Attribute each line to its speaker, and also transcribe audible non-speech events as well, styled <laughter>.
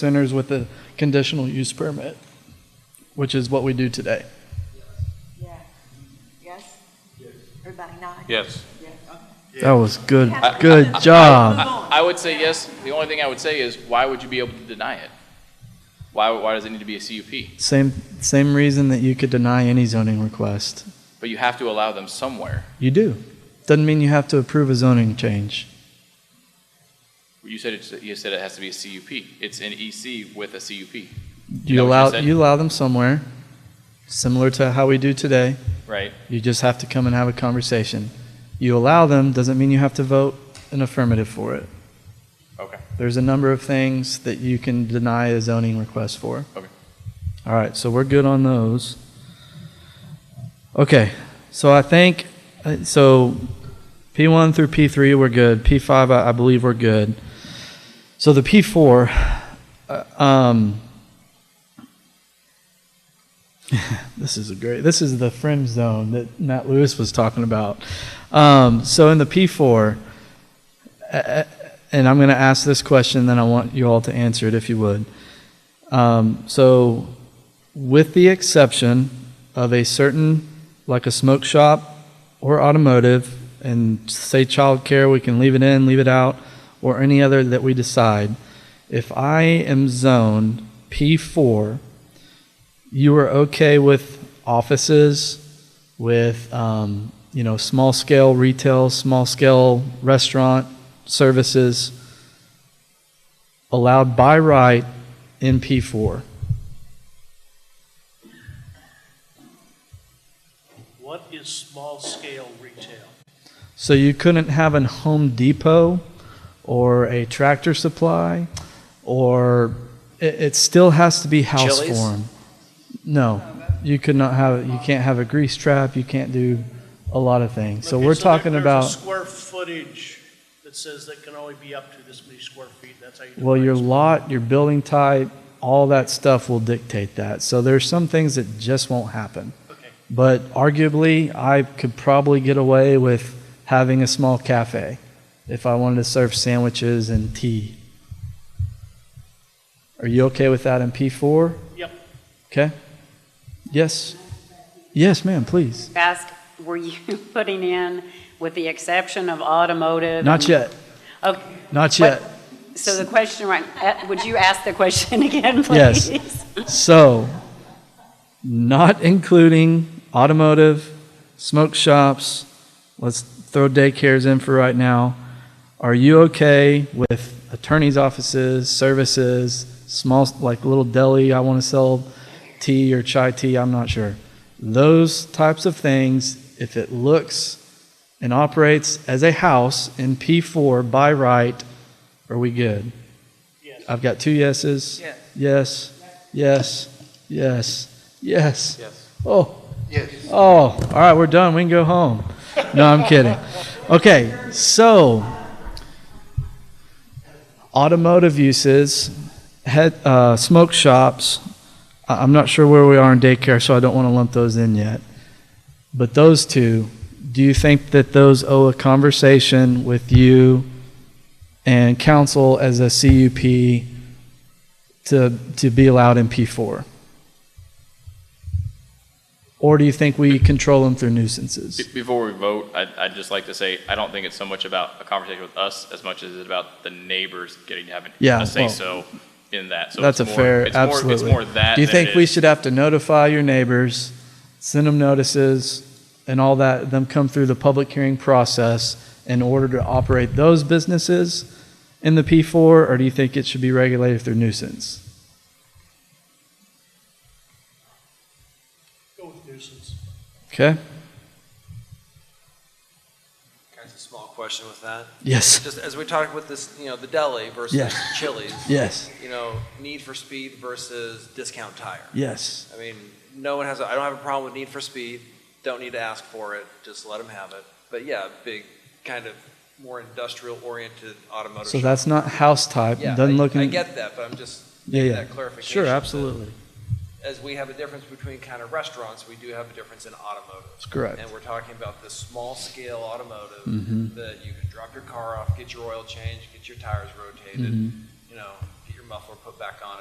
Speaker 1: centers with a conditional use permit, which is what we do today.
Speaker 2: Yeah. Yes? Everybody nod?
Speaker 3: Yes.
Speaker 2: Yeah, okay.
Speaker 1: That was good,
Speaker 3: <laughs>
Speaker 1: good job.
Speaker 3: I would say yes. The only thing I would say is, why would you be able to deny it? Why, why does it need to be a CUP?
Speaker 1: Same, same reason that you could deny any zoning request.
Speaker 3: But you have to allow them somewhere.
Speaker 1: You do. Doesn't mean you have to approve a zoning change.
Speaker 3: You said it, you said it has to be a CUP. It's an EC with a CUP,
Speaker 1: You
Speaker 3: what you
Speaker 1: allow,
Speaker 3: said?
Speaker 1: you allow them somewhere, similar to how we do today.
Speaker 3: right?
Speaker 1: You just have to come and have a conversation. You allow them, doesn't mean you have to vote an affirmative for it.
Speaker 3: Okay.
Speaker 1: There's a number of things that you can deny a zoning request for.
Speaker 3: Okay.
Speaker 1: All right, so we're good on those. Okay, so I think, uh, so P1 through P3, we're good. P5, I, I believe we're good. So the P4, uh, um, <laughs> this is a great, this is the friend zone that Matt Lewis was talking about. Um, so in the P4, uh, and I'm going to ask this question, then I want you all to answer it if you would. Um, so, with the exception of a certain, like a smoke shop or automotive, and say childcare, we can leave it in, leave it out, or any other that we decide. If I am zoned P4, you are okay with offices, with um, you know small scale retail, small scale restaurant services allowed by right in P4.
Speaker 4: What is small-scale retail?
Speaker 1: So you couldn't have an Home Depot or a Tractor Supply, or it, it still has to be house
Speaker 3: Chili's?
Speaker 1: form. No, you could not have. You can't have a grease trap. You can't do a lot of things. So
Speaker 4: Okay,
Speaker 1: we're
Speaker 4: there-
Speaker 1: talking
Speaker 4: there's a
Speaker 1: about.
Speaker 4: square footage that says that can only be up to this many square feet, that's how you.
Speaker 1: Well, your
Speaker 4: define
Speaker 1: lot, your building type, all that stuff will dictate that. So there's some things that just won't happen.
Speaker 4: Okay.
Speaker 1: But arguably, I could probably get away with having a small cafe if I wanted to serve sandwiches and tea. Are you okay with that in P4?
Speaker 4: Yep.
Speaker 1: Okay? Yes? Yes, ma'am, please.
Speaker 5: Ask, were you <laughs> putting in, with the exception of automotive?
Speaker 1: Not yet.
Speaker 5: Okay.
Speaker 1: Not yet.
Speaker 5: So the question, right, uh, would you ask the question <laughs> again,
Speaker 1: Yes.
Speaker 5: please?
Speaker 1: So, not including automotive, smoke shops, let's throw daycares in for right now. Are you okay with attorney's offices, services, small, like little deli, I want to sell tea or chai tea, I'm not sure. Those types of things, if it looks and operates as a house in P4 by right, are we good?
Speaker 4: Yes.
Speaker 1: I've got two yeses.
Speaker 3: Yes.
Speaker 1: Yes, yes, yes, yes.
Speaker 3: Yes.
Speaker 1: Oh. Yes. Oh, all right, we're done. We can go home. No, I'm kidding. Okay, so automotive uses, head, uh, smoke shops. I- I'm not sure where we are in daycare, so I don't want to lump those in yet. But those two, do you think that those owe a conversation with you and council as a CUP to, to be allowed in P4? Or do you think we control them through nuisances?
Speaker 3: Be- Before we vote, I'd, I'd just like to say, I don't think it's so much about a conversation with us as much as it's about the neighbors getting to have an-
Speaker 1: Yeah,
Speaker 3: a
Speaker 1: well,
Speaker 3: say-so in that. So
Speaker 1: that's
Speaker 3: it's
Speaker 1: a
Speaker 3: more-
Speaker 1: fair-
Speaker 3: it's more- It's
Speaker 1: absolutely.
Speaker 3: more that.
Speaker 1: Do you
Speaker 3: than it
Speaker 1: think we
Speaker 3: is-
Speaker 1: should have to notify your neighbors, send them notices, and all that, them come through the public hearing process in order to operate those businesses in the P4, or do you think it should be regulated through nuisance?
Speaker 4: Go with nuisance.
Speaker 1: Okay?
Speaker 6: Can I ask a small question with that?
Speaker 1: Yes.
Speaker 6: Just as we talked with this, you know, the deli versus
Speaker 1: Yes.
Speaker 6: Chili's,
Speaker 1: Yes.
Speaker 6: you know, need for speed versus discount tire.
Speaker 1: Yes.
Speaker 6: I mean, no one has, I I don't have a problem with need for speed, don't need to ask for it, just let them have it. But yeah, big, kind of more industrial oriented automotive.
Speaker 1: So
Speaker 6: shop.
Speaker 1: that's not house type.
Speaker 6: Yeah,
Speaker 1: Doesn't
Speaker 6: I-
Speaker 1: look.
Speaker 6: I
Speaker 1: in-
Speaker 6: get that, but I'm just,
Speaker 1: Yeah, yeah.
Speaker 6: that clarification.
Speaker 1: Sure,
Speaker 6: that
Speaker 1: absolutely.
Speaker 6: As we have a difference between kind of restaurants, we do have a difference in automotive.
Speaker 1: That's correct.
Speaker 6: And we're talking about this small scale automotive
Speaker 1: Mhm.
Speaker 6: that you can drop your car off, get your oil changed, get your tires rotated,
Speaker 1: Mhm.
Speaker 6: you know, get your muffler put back on